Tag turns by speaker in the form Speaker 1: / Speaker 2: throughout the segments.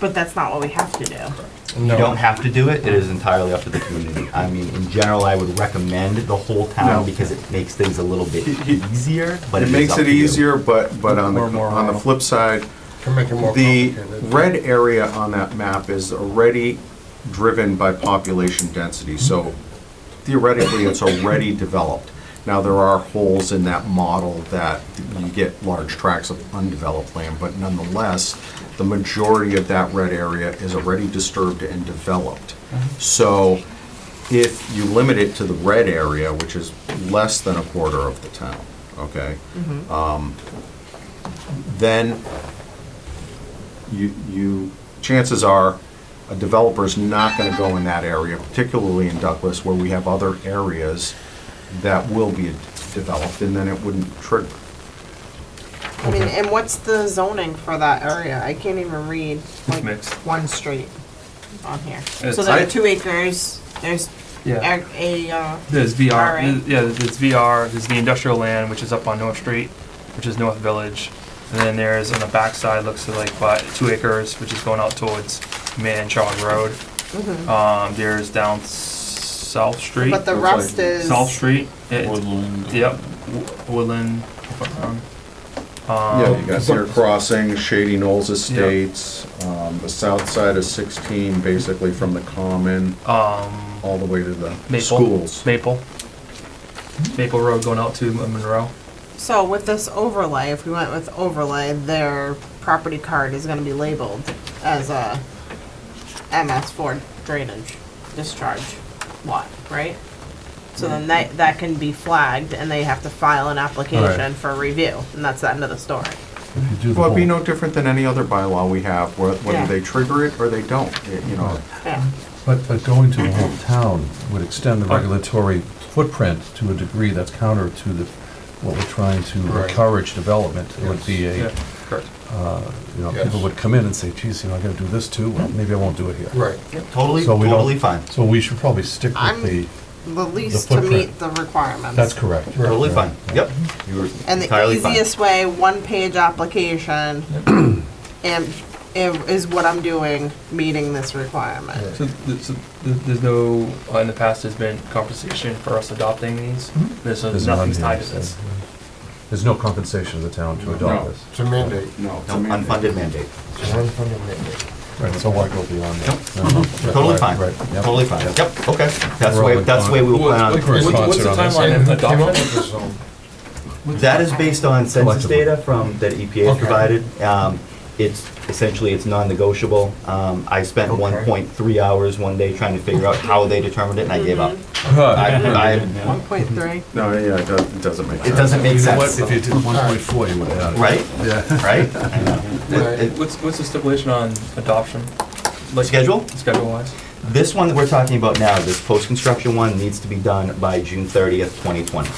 Speaker 1: But that's not what we have to do.
Speaker 2: You
Speaker 3: No.
Speaker 2: don't have to do it, it is entirely up to the community. I mean, in general, I would recommend the whole
Speaker 4: No.
Speaker 2: town because it makes things a little bit
Speaker 4: He- he-
Speaker 2: easier, but
Speaker 4: It
Speaker 2: it is
Speaker 4: makes
Speaker 2: up
Speaker 4: it
Speaker 2: to you.
Speaker 4: easier, but, but on the,
Speaker 3: Or more
Speaker 4: on the
Speaker 3: on.
Speaker 4: flip side,
Speaker 3: Can make it more
Speaker 4: the
Speaker 3: complicated.
Speaker 4: red area on that map is already driven by population density, so theoretically, it's already developed. Now, there are holes in that model that you get large tracts of undeveloped land, but nonetheless, the majority of that red area is already disturbed and developed.
Speaker 3: Mm-hmm.
Speaker 4: So if you limit it to the red area, which is less than a quarter of the town, okay?
Speaker 3: Mm-hmm.
Speaker 4: um, Then you, you, chances are, a developer's not gonna go in that area, particularly in Douglas, where we have other areas that will be developed, and then it wouldn't trigger.
Speaker 1: I mean, and what's the zoning for that area? I can't even read like
Speaker 5: mixed.
Speaker 1: one street on here.
Speaker 5: It's-
Speaker 1: So there
Speaker 5: I-
Speaker 1: are two acres, there's
Speaker 5: Yeah.
Speaker 1: a, a, uh,
Speaker 5: There's VR.
Speaker 1: Alright.
Speaker 5: Yeah, there's VR. There's the industrial land, which is up on North Street, which is North Village. And then there's on the backside, looks like about two acres, which is going out towards Man Chong Road. Um, there's down s- South Street.
Speaker 1: Mm-hmm. but the
Speaker 4: Looks like
Speaker 1: rest is.
Speaker 5: South Street. It-
Speaker 6: Woodland.
Speaker 5: Yep. W- Woodland. um,
Speaker 4: Yeah, you got
Speaker 5: um,
Speaker 4: Deer Crossing, Shady Knolls Estates, um, the south side of sixteen, basically from the common,
Speaker 5: Um,
Speaker 4: all the way to the
Speaker 5: Maple.
Speaker 4: schools.
Speaker 5: Maple. Maple Road going out to Monroe.
Speaker 1: So with this overlay, if we went with overlay, their property card is gonna be labeled as a MS four drainage discharge lot, right? So
Speaker 6: Mm-hmm.
Speaker 1: then that, that can be flagged and they have to file an application for review, and that's the end of the story.
Speaker 6: If you do the
Speaker 4: Well, it'd be
Speaker 6: whole-
Speaker 4: no different than any other bylaw we have, whe-
Speaker 1: Yeah.
Speaker 4: whether they trigger it or they don't, It- you know.
Speaker 1: Yeah.
Speaker 6: But, but going to the whole town would extend the regulatory footprint to a degree that's counter to the, what we're trying to
Speaker 3: Right.
Speaker 6: encourage development. It would be a,
Speaker 5: Yeah, correct.
Speaker 6: you know,
Speaker 3: Yes.
Speaker 6: people would come in and say, geez, you know, I gotta do this too, well, maybe I won't do it here.
Speaker 3: Right.
Speaker 2: Totally,
Speaker 6: So we don't-
Speaker 2: totally fine,
Speaker 6: So we should probably stick
Speaker 1: I'm-
Speaker 6: with the,
Speaker 1: The least
Speaker 6: The
Speaker 1: to
Speaker 6: footprint.
Speaker 1: meet the requirements.
Speaker 6: that's correct.
Speaker 2: totally fine, yep. You were
Speaker 1: And the
Speaker 2: entirely fine.
Speaker 1: easiest way, one-page application, and, and is what I'm doing, meeting this requirement.
Speaker 5: So, th- so th- there's no, uh, in the past, there's been compensation for us adopting these. There's no-
Speaker 6: There's
Speaker 5: nothing's
Speaker 6: none
Speaker 5: tied
Speaker 6: here,
Speaker 5: to this.
Speaker 6: so, There's no compensation to the town to adopt
Speaker 4: No.
Speaker 6: this.
Speaker 3: It's a mandate.
Speaker 4: No, it's a
Speaker 2: No,
Speaker 4: mandate.
Speaker 2: unfunded mandate,
Speaker 3: It's an unfunded mandate.
Speaker 6: Right, so why go beyond that? Uh-huh.
Speaker 2: Mm-hmm. totally
Speaker 6: Right,
Speaker 2: fine,
Speaker 6: right, yep.
Speaker 2: totally fine, yep, okay. That's the
Speaker 6: We're all
Speaker 2: way,
Speaker 6: in
Speaker 2: that's the way we will plan on.
Speaker 6: We're sponsored on this.
Speaker 3: And who came up with this zone?
Speaker 2: That is based on census
Speaker 6: Collectively.
Speaker 2: data from, that EPA
Speaker 3: Okay.
Speaker 2: provided. Um, It's, essentially, it's non-negotiable. Um, I spent
Speaker 3: Okay.
Speaker 2: 1.3 hours one day trying to figure out how they determined it, and I gave up.
Speaker 3: Mm-hmm.
Speaker 6: Huh.
Speaker 2: I- I-
Speaker 1: One point
Speaker 6: Mm-hmm.
Speaker 1: three.
Speaker 4: No, yeah, it does- it doesn't make
Speaker 2: It
Speaker 4: sense.
Speaker 2: doesn't make
Speaker 6: You know what,
Speaker 2: sense,
Speaker 6: if you did 1.4, you would have had it.
Speaker 2: right?
Speaker 6: Yeah.
Speaker 2: Right? I know.
Speaker 3: Right.
Speaker 2: It-
Speaker 5: What's, what's the stipulation on adoption?
Speaker 2: it- Schedule?
Speaker 5: Schedule wise?
Speaker 2: This one that we're talking about now, this post-construction one, needs to be done by June 30th, 2020.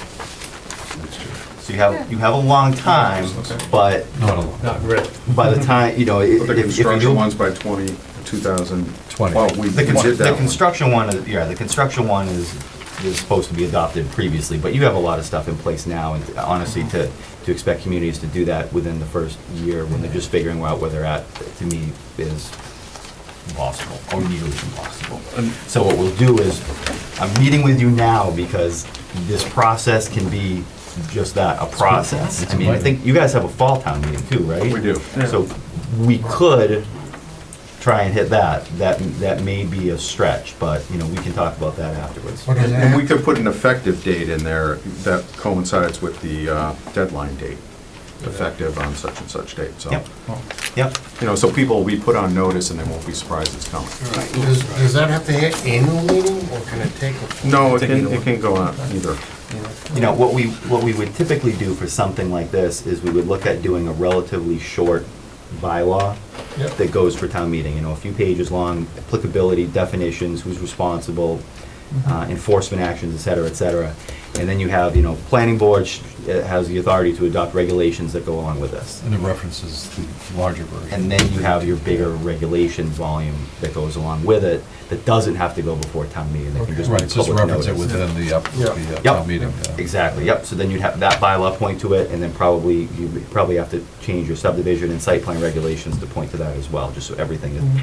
Speaker 2: So you have, you have a long time, but
Speaker 6: Not alone.
Speaker 3: Not really.
Speaker 2: by the time, you know, i- if
Speaker 4: But
Speaker 2: if
Speaker 4: the
Speaker 2: you...
Speaker 4: construction one's by twenty, two thousand.
Speaker 6: Twenty.
Speaker 4: Well, we we
Speaker 2: The,
Speaker 4: did
Speaker 2: con- the
Speaker 4: that one.
Speaker 2: construction one, is- yeah, the construction one is, is supposed to be adopted previously, but you have a lot of stuff in place now, and honestly, to, to expect communities to do that within the first year, when they're just figuring out where they're at, to me, is impossible, or nearly impossible.
Speaker 5: And-
Speaker 2: So what we'll do is, I'm meeting with you now, because this process can be just that, a process. I mean, I think you guys have a fall town meeting too, right?
Speaker 4: We do.
Speaker 2: So we could try and hit that. That, that may be a stretch, but, you know, we can talk about that afterwards.
Speaker 3: What does
Speaker 4: And
Speaker 3: that
Speaker 4: we could put an effective date in there that coincides with the uh, deadline date, effective on such and such date, so.
Speaker 2: Yep, yep.
Speaker 4: You know, so people will be put on notice and they won't be surprised it's coming.
Speaker 3: Does, does that have to hit annual meeting or can it take? a-
Speaker 4: No, it
Speaker 5: Take
Speaker 4: can,
Speaker 5: either
Speaker 4: it
Speaker 5: one.
Speaker 4: can go on either.
Speaker 2: You know, what we, what we would typically do for something like this is we would look at doing a relatively short bylaw
Speaker 3: Yep.
Speaker 2: that goes for town meeting, you know, a few pages long, applicability, definitions, who's responsible, uh, enforcement actions, et cetera, et cetera. And then you have, you know, planning board sh- uh, has the authority to adopt regulations that go along with this.
Speaker 6: And it references the larger version.
Speaker 2: And then you have your bigger regulation volume that goes along with it, that doesn't have to go before town meeting. That can just be
Speaker 6: Right, just
Speaker 2: public
Speaker 6: reference it
Speaker 2: notice.
Speaker 6: within the, up-
Speaker 3: Yeah.
Speaker 6: the
Speaker 2: Yep.
Speaker 6: uh, town meeting. yeah.
Speaker 2: Exactly, yep, so then you'd have that bylaw point to it, and then probably, you probably have to change your subdivision and site plan regulations to point to that as well, just so everything is